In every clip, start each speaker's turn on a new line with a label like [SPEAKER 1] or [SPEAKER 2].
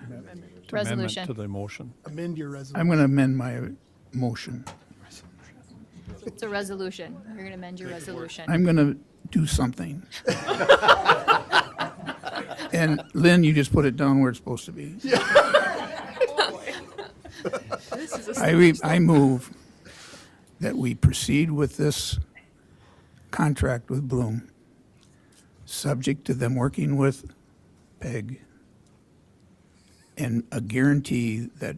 [SPEAKER 1] correct amendment
[SPEAKER 2] Resolution.
[SPEAKER 1] to the motion.
[SPEAKER 3] Amend your resolution.
[SPEAKER 4] I'm going to amend my motion.
[SPEAKER 2] It's a resolution. You're going to amend your resolution.
[SPEAKER 4] I'm going to do something. And Lynn, you just put it down where it's supposed to be. I, re- I move that we proceed with this contract with Bloom, subject to them working with PEG and a guarantee that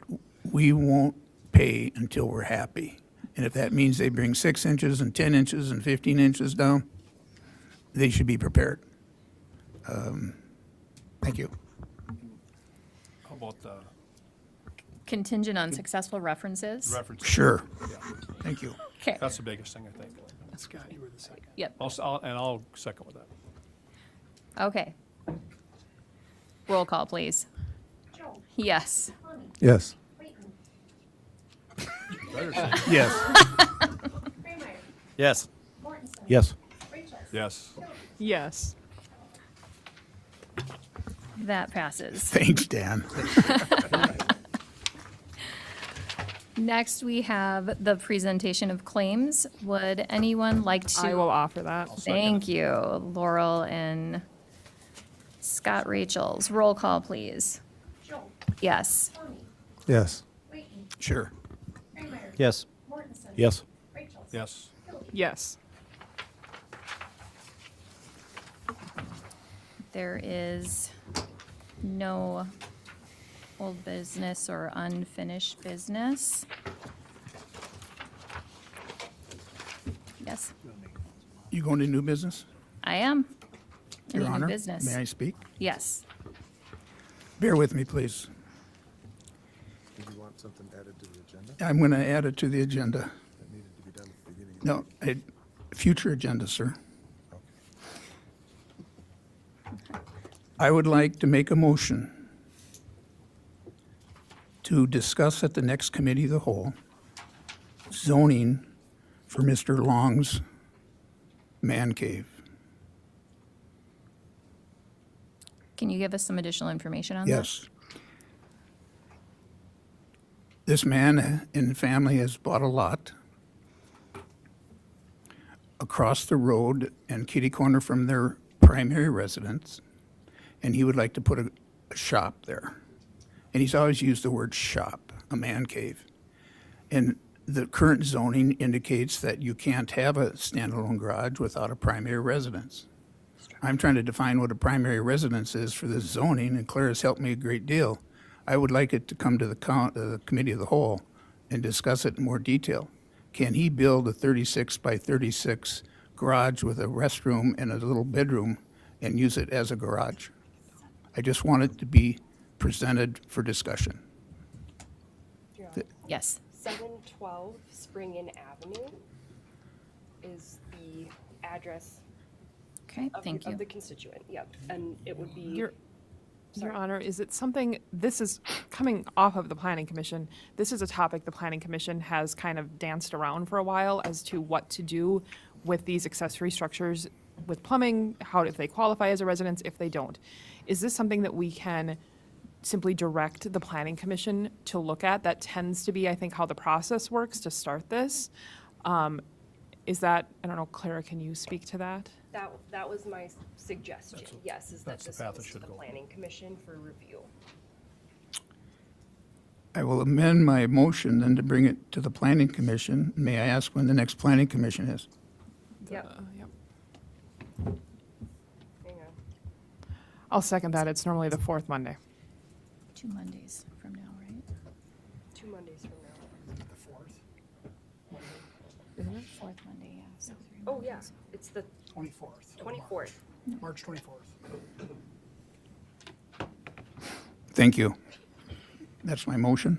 [SPEAKER 4] we won't pay until we're happy. And if that means they bring six inches and 10 inches and 15 inches down, they should be prepared. Um, Thank you.
[SPEAKER 1] How about the
[SPEAKER 2] Contingent on successful references.
[SPEAKER 1] reference?
[SPEAKER 4] Sure. Thank you.
[SPEAKER 2] Okay,
[SPEAKER 1] That's the biggest thing, I think.
[SPEAKER 3] Scott, you were the second.
[SPEAKER 2] yep,
[SPEAKER 1] I'll s- I'll, and I'll second with that.
[SPEAKER 2] okay. Roll call, please.
[SPEAKER 5] Jones,
[SPEAKER 2] Yes.
[SPEAKER 5] Honey,
[SPEAKER 6] Yes.
[SPEAKER 5] Clayton,
[SPEAKER 4] Yes.
[SPEAKER 5] Kramer,
[SPEAKER 7] Yes.
[SPEAKER 5] Mortensen.
[SPEAKER 6] Yes.
[SPEAKER 5] Rachel.
[SPEAKER 1] Yes.
[SPEAKER 8] Yes.
[SPEAKER 2] That passes.
[SPEAKER 4] Thanks, Dan.
[SPEAKER 2] Next, we have the presentation of claims. Would anyone like to?
[SPEAKER 8] I will offer that.
[SPEAKER 2] Thank you, Laurel and Scott Rachels. Roll call, please.
[SPEAKER 5] Jones,
[SPEAKER 2] Yes.
[SPEAKER 5] Honey,
[SPEAKER 6] Yes.
[SPEAKER 5] Clayton,
[SPEAKER 4] Sure.
[SPEAKER 5] Kramer.
[SPEAKER 7] Yes.
[SPEAKER 5] Mortensen.
[SPEAKER 6] Yes.
[SPEAKER 5] Rachel.
[SPEAKER 1] Yes.
[SPEAKER 8] Yes.
[SPEAKER 2] There is no old business or unfinished business. Yes,
[SPEAKER 4] You going to new business?
[SPEAKER 2] I am.
[SPEAKER 4] Your
[SPEAKER 2] Any new
[SPEAKER 4] Honor?
[SPEAKER 2] business?
[SPEAKER 4] May I speak?
[SPEAKER 2] Yes.
[SPEAKER 4] Bear with me, please.
[SPEAKER 9] Did you want something added to the agenda?
[SPEAKER 4] I'm going to add it to the agenda.
[SPEAKER 9] That needed to be done at the beginning. of the
[SPEAKER 4] No, I- future agenda, sir. I would like to make a motion to discuss at the next committee of the whole zoning for Mr. Long's man cave.
[SPEAKER 2] Can you give us some additional information on that?
[SPEAKER 4] Yes. This man and family has bought a lot across the road and kitty corner from their primary residence, and he would like to put a, a shop there. And he's always used the word shop, a man cave. And the current zoning indicates that you can't have a standalone garage without a primary residence. I'm trying to define what a primary residence is for this zoning, and Claire has helped me a great deal. I would like it to come to the count, uh, the committee of the whole and discuss it in more detail. Can he build a thirty-six by thirty-six garage with a restroom and a little bedroom and use it as a garage? I just want it to be presented for discussion.
[SPEAKER 2] Yes.
[SPEAKER 10] 712 Spring Inn Avenue is the address
[SPEAKER 2] Okay,
[SPEAKER 10] of,
[SPEAKER 2] thank
[SPEAKER 10] the, of the
[SPEAKER 2] you.
[SPEAKER 10] constituent. Yep. And it would be
[SPEAKER 8] Your, Your
[SPEAKER 10] Sorry.
[SPEAKER 8] Honor, is it something, this is coming off of the Planning Commission. This is a topic the Planning Commission has kind of danced around for a while as to what to do with these accessory structures with plumbing, how, if they qualify as a residence, if they don't. Is this something that we can simply direct the Planning Commission to look at? That tends to be, I think, how the process works to start this. Um, Is that, I don't know, Clara, can you speak to that?
[SPEAKER 10] that that was my suggestion. yes, is that
[SPEAKER 1] that's the
[SPEAKER 10] this
[SPEAKER 1] path it
[SPEAKER 10] goes to
[SPEAKER 1] should
[SPEAKER 10] the
[SPEAKER 1] go.
[SPEAKER 10] Planning Commission for review.
[SPEAKER 4] I will amend my motion then to bring it to the planning commission. May I ask when the next planning commission is?
[SPEAKER 10] Yep.
[SPEAKER 8] Uh, Yep.
[SPEAKER 10] Hang on.
[SPEAKER 8] I'll second that. It's normally the fourth Monday.
[SPEAKER 2] Two Mondays from now, right?
[SPEAKER 10] Two Mondays from now.
[SPEAKER 3] The fourth,
[SPEAKER 2] Fourth Monday, yeah. so three
[SPEAKER 10] Oh
[SPEAKER 2] Mondays.
[SPEAKER 10] yeah, it's the
[SPEAKER 3] twenty-fourth.
[SPEAKER 10] 24th.
[SPEAKER 3] March twenty-fourth.
[SPEAKER 4] Thank you. That's my motion.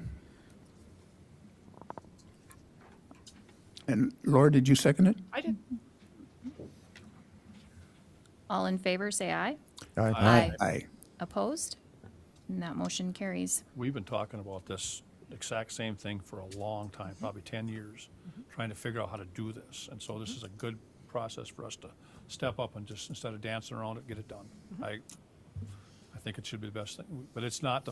[SPEAKER 4] And Laura, did you second it?
[SPEAKER 8] I did.
[SPEAKER 2] All in favor, say aye.
[SPEAKER 6] Aye.
[SPEAKER 4] Aye.
[SPEAKER 2] Opposed? And that motion carries.
[SPEAKER 1] We've been talking about this exact same thing for a long time, probably
[SPEAKER 3] Mm-hmm.
[SPEAKER 1] 10 years, trying to figure out how to do this. And so this is a good process for us to step up and
[SPEAKER 3] Mm-hmm.
[SPEAKER 1] just, instead of dancing around it, get it done. I, I think it should be the best thing, but it's not the